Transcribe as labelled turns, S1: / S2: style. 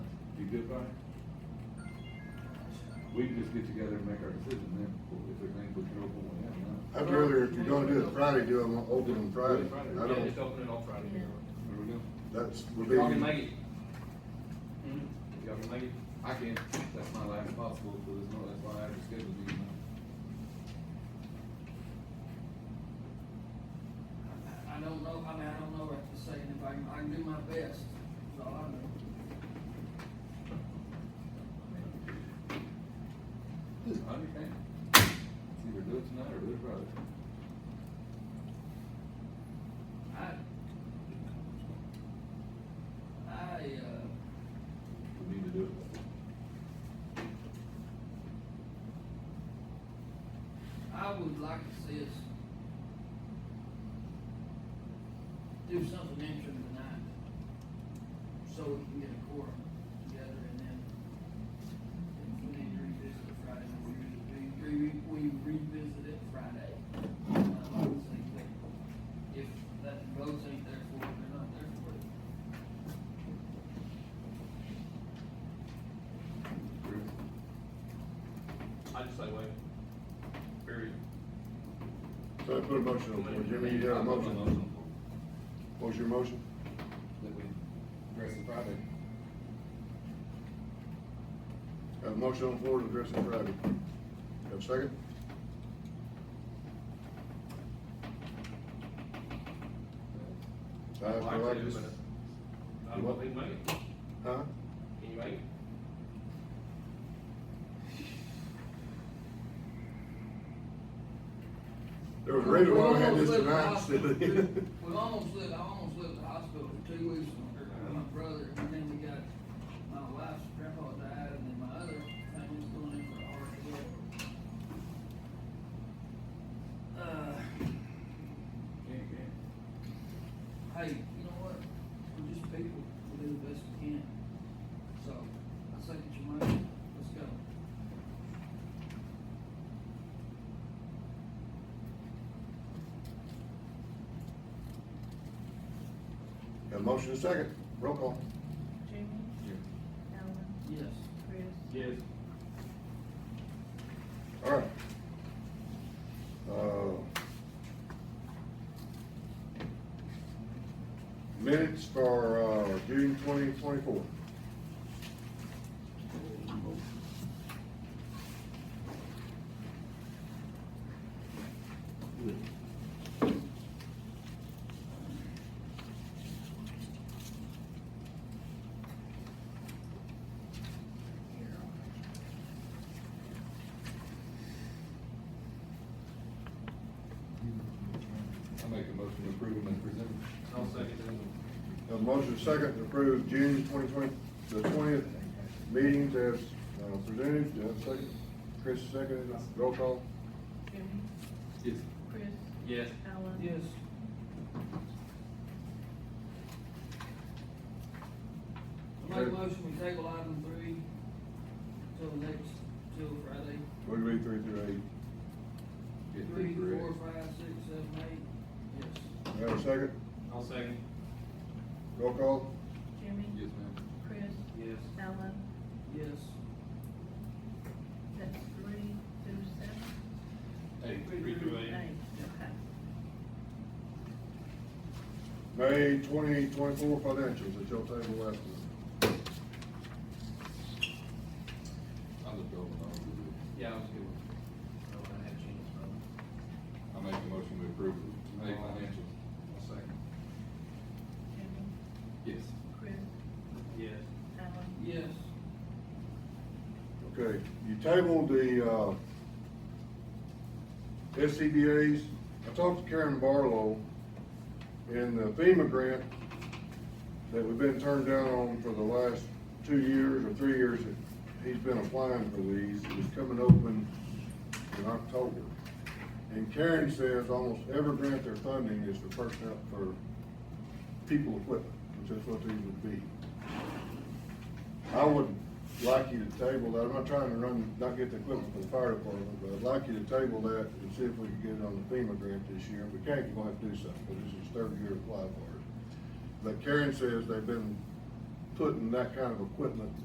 S1: good by? We can just get together and make our decision then, if there's anything we can open one in, huh?
S2: I'd rather, if you're gonna do it Friday, do them open on Friday. I
S3: Yeah, just
S2: don't,
S3: open it on Friday.
S1: There we go.
S2: that's, would be,
S3: Y'all can
S2: I
S3: make it. Mhm. Y'all can make it.
S1: I can't, that's my last possible for this, no, that's why I have to schedule these.
S4: I don't know, I mean, I don't know what to say, if I can, I can do my best, so I know.
S1: I understand. It's either do it tonight or do it Friday.
S4: I, I, uh,
S1: We need to do it.
S4: I would like to see us do something interim tonight, so we can get a quorum together, and then if we need to revisit it Friday, we re- we, re- we revisit it Friday. Uh, I would say that If that votes ain't there for it, they're not there for it.
S1: Chris?
S3: I just say wait. Period.
S2: put a motion on, the floor. Jimmy, you got a motion? What's your motion?
S1: That we address it Friday.
S2: Got a motion on the floor to address it Friday. Have a second? I
S3: I'd
S2: feel
S3: like
S2: like
S3: to,
S2: this-
S3: but I don't know if he Uh, can make it.
S2: Huh?
S3: Can you make it?
S2: There was a reason why we had this
S4: We've
S2: tonight,
S4: almost lived in the hospital
S2: silly.
S4: for two- We've almost lived, I almost lived in the hospital for two weeks with my- my brother, and then we got, my wife's grandpa died, and then my other family's going in for heart as well. Uh,
S1: Can't, can't.
S4: hey, you know what? We're just people, we do the best we can. So, I second your motion, let's go.
S2: Got a motion and a second. Roll call.
S5: Jamie? Alan?
S4: Yes.
S5: Chris?
S3: Yes.
S2: All right. Uh, Minutes for, uh, June twenty twenty-four.
S1: I make a motion to approve them as presented.
S3: I'll second that.
S2: A motion second to approve June twenty twenty, the twentieth meetings as uh, presented, Do I have a second, Chris second, roll call.
S5: Jamie?
S1: Yes.
S5: Chris?
S3: Yes.
S5: Alan?
S4: Yes. I make a motion, we table item three till the next, till Friday.
S2: What do we read three through eight?
S1: Get the
S4: Three,
S1: correct.
S4: four, five, six, seven, eight, yes.
S2: Do I have a second,
S3: I'll second.
S2: roll call,
S5: Jamie?
S1: Yes, ma'am.
S5: Chris?
S3: Yes.
S5: Alan?
S4: Yes.
S5: That's three, two, seven?
S1: Oh.
S3: Hey, three through eight.
S5: okay.
S2: May twenty twenty-four financials that y'all tabled last month.
S1: I looked over and I
S3: Yeah, I was good. I don't wanna have changes,
S1: was,
S3: bro.
S1: I make a motion to approve the May financials.
S3: I'll second.
S5: Jamie?
S1: Yes.
S5: Chris?
S3: Yes.
S5: Alan?
S4: Yes.
S2: Okay, you tabled the, uh, SCBA's, I talked to Karen Barlow in the FEMA grant that we've been turned down on for the last two years or three years that he's been applying for these, is coming open in October. And Karen says almost every grant they're funding is for personnel, for people equipment, which is what these would be. I would like you to table that, I'm not trying to run, not get the equipment for the fire department, but I'd like you to table that and see if we can get it on the FEMA grant this year. If we can't, we're gonna have to do something, because this is his third year to apply for it. But Karen says they've been putting that kind of equipment